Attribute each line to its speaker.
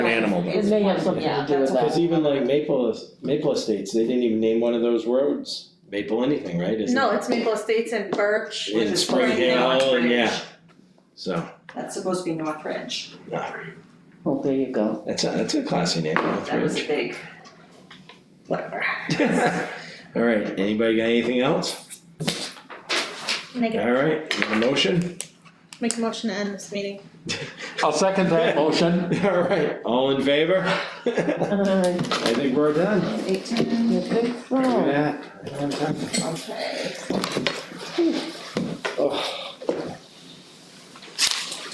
Speaker 1: his
Speaker 2: It may have
Speaker 1: point,
Speaker 2: something
Speaker 1: yeah,
Speaker 2: to do with
Speaker 1: that's-
Speaker 2: that.
Speaker 3: Cause even like Maple, Maple Estates, they didn't even name one of those roads, Maple anything, right, isn't
Speaker 4: No,
Speaker 3: it?
Speaker 4: it's Maple Estates and Birch.
Speaker 3: In
Speaker 4: which is
Speaker 3: Spring
Speaker 4: Spring
Speaker 3: Hill,
Speaker 4: North
Speaker 3: and
Speaker 4: Ridge.
Speaker 3: yeah. So,
Speaker 1: That's supposed to be North Ridge,
Speaker 2: Well, there you go.
Speaker 3: that's a, that's a classy name, North
Speaker 1: that was a
Speaker 3: Ridge.
Speaker 1: big, whatever.
Speaker 3: Alright, anybody got anything else?
Speaker 4: Make a,
Speaker 3: Alright, a motion?
Speaker 4: make a motion to end this meeting.
Speaker 5: I'll second that motion.
Speaker 3: Alright, all in favor? I
Speaker 2: Uh,
Speaker 3: think we're done.
Speaker 2: eighteen, you think so?
Speaker 3: Yeah.
Speaker 1: Okay.
Speaker 3: Oh.